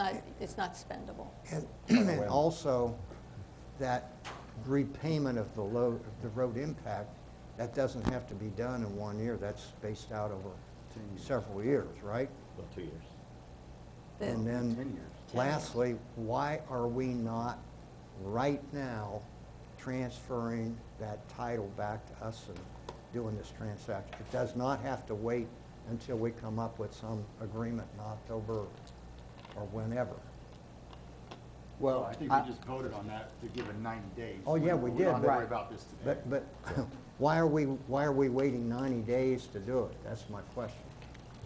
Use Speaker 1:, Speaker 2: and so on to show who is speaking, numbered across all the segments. Speaker 1: not, it's not spendable.
Speaker 2: And and also, that repayment of the load, of the road impact, that doesn't have to be done in one year, that's spaced out over several years, right?
Speaker 3: Well, two years.
Speaker 1: The-
Speaker 2: And
Speaker 3: Ten
Speaker 2: then,
Speaker 3: years.
Speaker 2: lastly, why are we not right now transferring that title back to us and doing this transaction? It does not have to wait until we come up with some agreement in October or whenever.
Speaker 4: Well, I think we just voted on that to give it 90 days.
Speaker 2: Oh, yeah, we did.
Speaker 4: We don't have to worry
Speaker 2: but-
Speaker 4: about this today.
Speaker 2: But, but why are we, why are we waiting 90 days to do it? That's my question.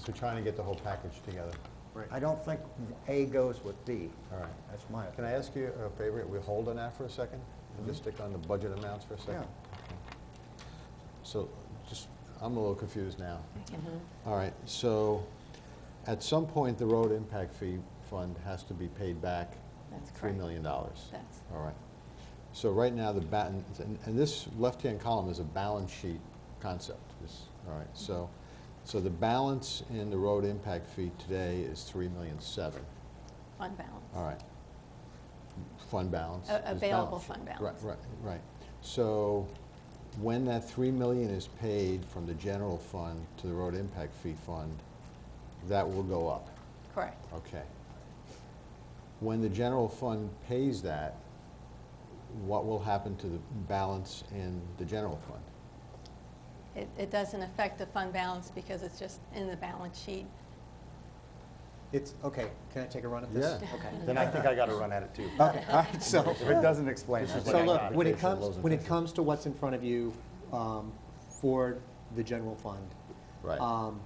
Speaker 5: So trying to get the whole package together.
Speaker 4: Right.
Speaker 2: I don't think A goes with B.
Speaker 5: All right.
Speaker 2: That's my,
Speaker 5: Can I ask you a favor? We hold on that for a second? And
Speaker 1: Mm-hmm.
Speaker 5: just stick on the budget amounts for a second? Okay. So just, I'm a little confused now. All right, so at some point, the road impact fee fund has to be paid back
Speaker 1: That's
Speaker 5: $3
Speaker 1: correct.
Speaker 5: million. That's.
Speaker 1: That's-
Speaker 5: All right. So right now, the ba, and and this left-hand column is a balance sheet concept. This- All right,
Speaker 1: Mm-hmm.
Speaker 5: so, so the balance in the road impact fee today is $3.7 million.
Speaker 1: fund balance.
Speaker 5: All right. Fund balance.
Speaker 1: A-
Speaker 5: is balance
Speaker 1: available
Speaker 5: sheet.
Speaker 1: fund balance.
Speaker 5: Right, right, right. So when that 3 million is paid from the general fund to the road impact fee fund, that will go up,
Speaker 1: Correct.
Speaker 5: okay. When the general fund pays that, what will happen to the balance in the general fund?
Speaker 1: It, it doesn't affect the fund balance because it's just in the balance sheet.
Speaker 6: It's, okay, can I take a run at this?
Speaker 5: Yeah.
Speaker 6: Okay.
Speaker 3: Then I think I gotta run at it too.
Speaker 2: Oh.
Speaker 6: Okay, all right, so,
Speaker 3: If it doesn't explain it.
Speaker 6: so
Speaker 5: like
Speaker 6: look, when
Speaker 5: application
Speaker 6: it
Speaker 5: of
Speaker 6: comes,
Speaker 5: those
Speaker 6: when it
Speaker 5: intentions.
Speaker 6: comes to what's in front of you um, for the general fund,
Speaker 5: Right.
Speaker 6: um,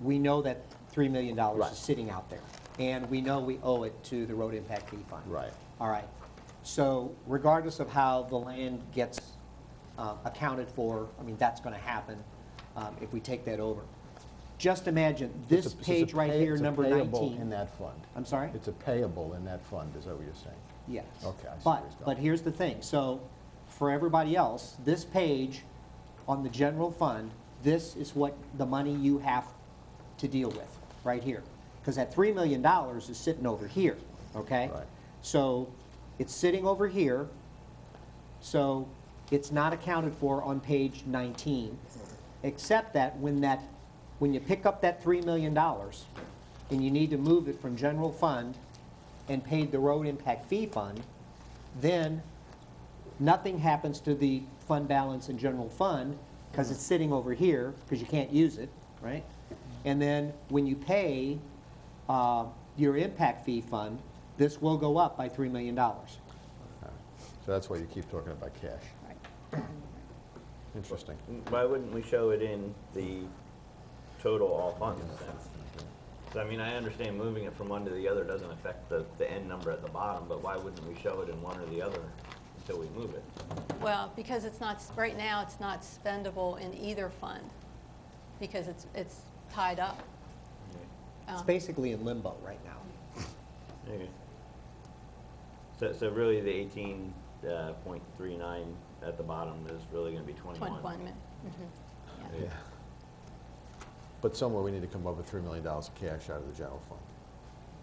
Speaker 6: we know that $3 million
Speaker 5: Right.
Speaker 6: is sitting out there, and we know we owe it to the road impact fee fund.
Speaker 5: Right.
Speaker 6: All right, so regardless of how the land gets uh, accounted for, I mean, that's going to happen um, if we take that over. Just imagine, this
Speaker 5: It's a- it's a
Speaker 6: page right
Speaker 5: pay-
Speaker 6: here,
Speaker 5: it's a
Speaker 6: number
Speaker 5: payable
Speaker 6: 19.
Speaker 5: in that fund.
Speaker 6: I'm sorry?
Speaker 5: It's a payable in that fund, is that what you're saying?
Speaker 6: Yes.
Speaker 5: Okay, I see where he's
Speaker 6: But,
Speaker 5: going.
Speaker 6: but here's the thing, so for everybody else, this page on the general fund, this is what the money you have to deal with, right here. Because that three million dollars is sitting over here, okay?
Speaker 5: Right.
Speaker 6: So it's sitting over here, so it's not accounted for on page nineteen, except that when that, when you pick up that three million dollars, and you need to move it from general fund and pay the road impact fee fund, then nothing happens to the fund balance in general fund, because it's sitting over here, because you can't use it, right? And then when you pay uh, your impact fee fund, this will go up by $3 million.
Speaker 5: So that's why you keep talking about cash.
Speaker 1: Right.
Speaker 5: Interesting.
Speaker 7: Why wouldn't we show it in the total all funds then? 'Cause, I mean, I understand moving it from one to the other doesn't affect the, the end number at the bottom, but why wouldn't we show it in one or the other until we move it?
Speaker 1: Well, because it's not, right now, it's not spendable in either fund because it's, it's tied up.
Speaker 6: It's
Speaker 1: Um,
Speaker 6: basically in limbo right now.
Speaker 7: Okay. So, so really the eighteen, uh, point three nine at the bottom is really gonna be twenty-one.
Speaker 1: 21 minutes. Mhm. Yeah.
Speaker 5: Yeah. But somewhere we need to come up with $3 million of cash out of the general fund.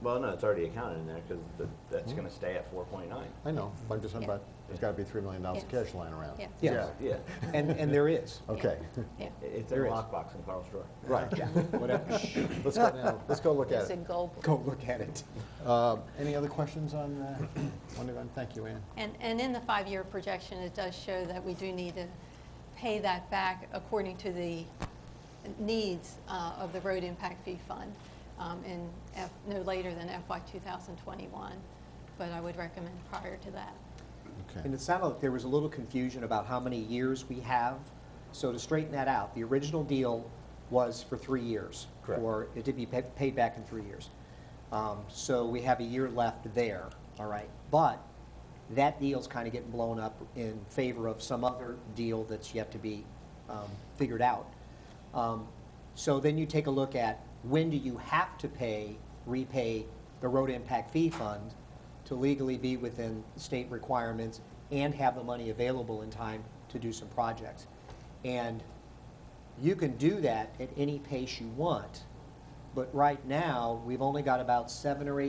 Speaker 7: Well, no, it's already accounted in there, cause the, that's
Speaker 6: Hmm.
Speaker 7: gonna stay at four point nine.
Speaker 5: I know, but I'm just talking
Speaker 1: Yeah.
Speaker 5: about, there's got to be $3 million of
Speaker 1: Yeah.
Speaker 5: cash lying around.
Speaker 1: Yeah.
Speaker 6: Yes,
Speaker 7: Yeah,
Speaker 6: and, and there is.
Speaker 5: Okay,
Speaker 1: Yeah.
Speaker 7: It- it's in a
Speaker 6: There is.
Speaker 7: lockbox in Carl's drawer.
Speaker 5: right.
Speaker 6: Whatever.
Speaker 5: Let's go now, let's go look
Speaker 1: It's
Speaker 5: at
Speaker 1: a
Speaker 5: it.
Speaker 1: gold.
Speaker 6: Go look at it.
Speaker 5: Uh, Any other questions on, uh, on the- on- thank you, Ann.
Speaker 1: And, and in the five-year projection, it does show that we do need to pay that back according to the needs uh, of the road impact fee fund um, in, F- no later than FY 2021, but I would recommend prior to that.
Speaker 5: Okay.
Speaker 6: And it sounded like there was a little confusion about how many years we have. So to straighten that out, the original deal was for three years.
Speaker 5: Correct.
Speaker 6: For it to be pa- paid back in three years. Um, So we have a year left there, all right? But that deal's kind of getting blown up in favor of some other deal that's yet to be um, figured out. Um, So then you take a look at, when do you have to pay, repay the road impact fee fund to legally be within state requirements and have the money available in time to do some projects? And you can do that at any pace you want, but right now, we've only got about seven or eight.